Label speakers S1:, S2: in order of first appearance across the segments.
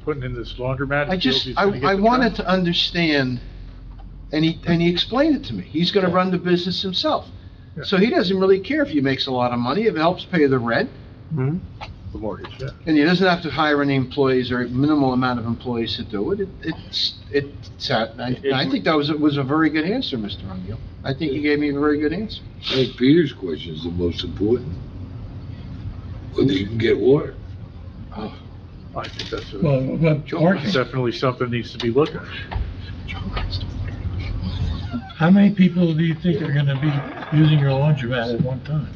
S1: putting in this laundromat.
S2: I just,
S1: Fields is
S2: I,
S1: gonna get
S2: I
S1: the
S2: wanted
S1: truck.
S2: to understand, and he, and he explained it to me. He's gonna
S1: Yeah.
S2: run the business himself.
S1: Yeah.
S2: So he doesn't really care if he makes a lot of money, if it helps pay the rent,
S1: Mhm.
S3: the mortgage.
S1: Yeah.
S2: and he doesn't have to hire any employees or minimal amount of employees to do it. It- It's, it's, I, I think that was, was a very good answer, Mr. O'Neill. I think you gave me a very good answer.
S4: I think Peter's question is the most important. Whether you can get water.
S1: I think that's, a-
S5: Well, but
S1: it's
S5: parking,
S1: definitely something that needs to be looked at.
S5: how many people do you think are gonna be using your laundromat at one time?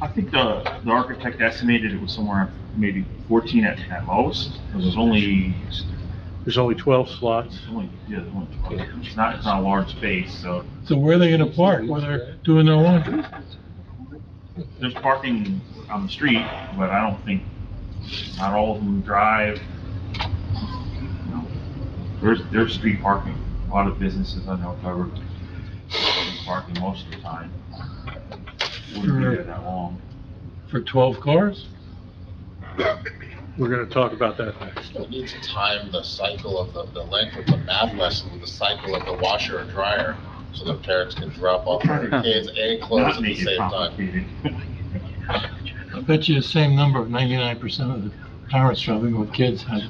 S6: I think the, the architect estimated it was somewhere maybe fourteen at, at lowest, because there's only,
S1: There's only twelve slots.
S6: there's only, yeah, there's only twelve. It's not, it's not a large space, so
S5: So where are they gonna park while they're doing their laundry?
S6: there's parking on the street, but I don't think, not all of them drive. You know, There's, there's street parking. A lot of businesses I know cover street parking most of the time. Wouldn't be there that long.
S5: For twelve cars?
S1: We're gonna talk about that next.
S7: It needs to time the cycle of the, the length of the math lesson, with the cycle of the washer and dryer, so that parents can drop off their kids and clothes
S6: Not
S7: at the
S6: make it
S7: same time.
S6: complicated.
S5: I bet you the same number, ninety-nine percent of the parents traveling with kids have,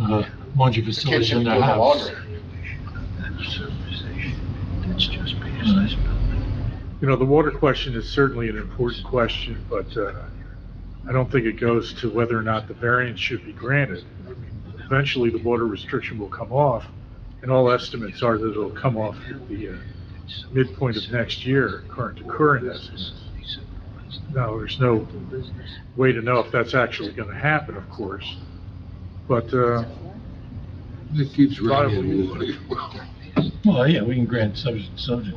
S5: uh, laundry
S7: Kids
S5: facilities
S7: should
S5: in
S7: be
S5: their
S7: doing the
S5: house.
S7: laundry.
S1: You know, the water question is certainly an important question, but, uh, I don't think it goes to whether or not the variance should be granted. I mean, Eventually, the water restriction will come off, and all estimates are that it'll come off at the, uh, midpoint of next year, current to current estimates. Now, there's no way to know if that's actually gonna happen, of course, but, uh,
S4: It keeps
S1: Viable
S4: raining
S1: use.
S4: water.
S5: Well, yeah, we can grant subject, subject.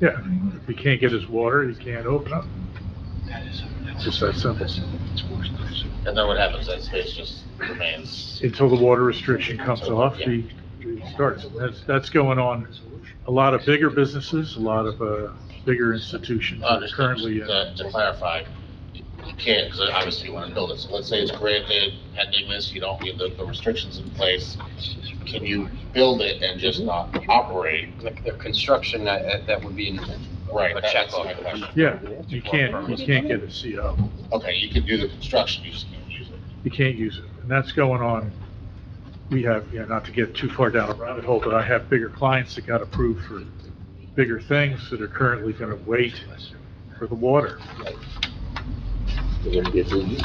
S1: yeah, if he can't get his water, he can't open up. It's just that simple.
S7: And then what happens, that space just remains.
S1: until the water restriction comes off, the, the starts. That's, that's going on a lot of bigger businesses, a lot of, uh, bigger institutions that are
S7: Understood.
S1: currently, uh,
S7: To to clarify, you you can't, because obviously you want to build it, so let's say it's granted, pending this, you don't need the, the restrictions in place. Can you build it and just not operate?
S8: Like the construction, that, that- that would be in
S7: Right,
S8: a
S7: that-
S8: check
S7: that's
S8: off.
S7: my question.
S1: yeah, you can't, you can't get a CO.
S7: Okay, you can do the construction, you just can't use it.
S1: You can't use it. And that's going on. We have, you know, not to get too far down a rabbit hole, but I have bigger clients that got approved for bigger things that are currently gonna wait for the water.
S3: They're gonna get their use.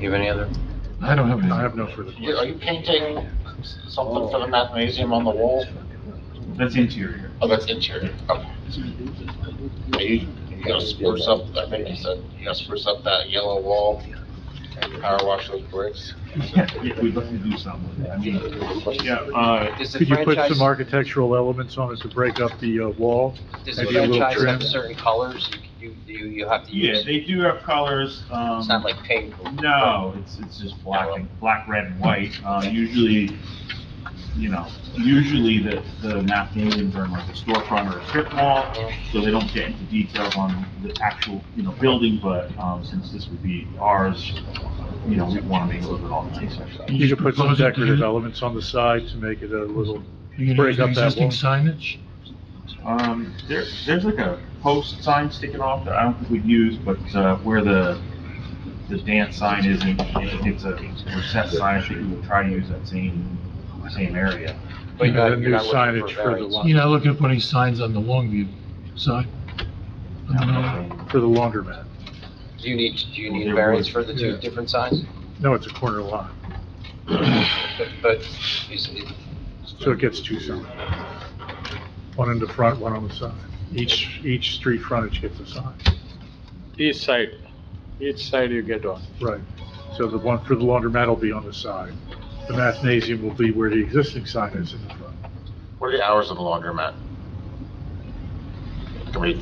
S8: You have any other?
S5: I don't have any.
S1: I have no further
S7: You- Are
S1: questions.
S7: you painting something for the mathnasium on the wall?
S6: That's interior.
S7: Oh, that's interior, okay. Are you, you gonna spruce up, I think you said, you gonna spruce up that yellow wall? and Power wash those bricks?
S6: Yeah, we'd love to do something with it. I mean, yeah, uh,
S8: Does the
S1: Could you put
S8: franchise,
S1: some architectural elements on it to break up the, uh, wall?
S8: does the
S1: maybe a little
S8: franchise
S1: trim?
S8: have certain colors you, you, you- you have to
S6: yeah,
S8: use?
S6: they do have colors, um.
S8: It's not like paint.
S6: No, it's, it's just black and, black, red, and white. Uh, usually, you know, usually the, the Mathnasians are in like a storefront or a strip mall, so they don't get into details on the actual, you know, building, but, um, since this would be ours, you know, we wanna make it a little bit all nicer.
S1: You could put some
S5: Propose it to
S1: decorative
S5: you.
S1: elements on the side to make it a little,
S5: You can
S1: break
S5: use the
S1: up that
S5: existing
S1: wall.
S5: signage?
S6: Um, there, there's like a post sign sticking off that I don't think we'd use, but, uh, where the, the dance sign isn't, it's a recessed sign, I think we would try to use that same, same area.
S8: But you're
S1: Yeah,
S8: not-
S1: the
S8: you're
S1: new
S8: not looking
S1: signage
S8: a
S1: for the
S8: variance.
S1: lot.
S5: You're not looking to put any signs on the Longview side? I don't know.
S1: for the laundromat.
S8: Do you need, do you need a variance for the
S1: Yeah.
S8: two different signs?
S1: No, it's a corner lot,
S8: But, but is it-
S1: so it gets two signs. One in the front, one on the side. Each, each street frontage gets a sign.
S9: Each side, each side you get one.
S1: Right. So the one for the laundromat will be on the side. The mathnasium will be where the existing sign is in the front.
S7: What are the hours of the laundromat? Can we,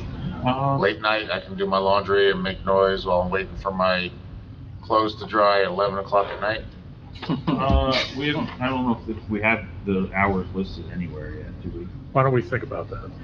S6: Um,
S7: late night, I can do my laundry and make noise while I'm waiting for my clothes to dry at eleven o'clock at night?
S6: Uh, we haven't, I don't know if we have the hours listed anywhere yet, do we?
S1: Why don't we think about that?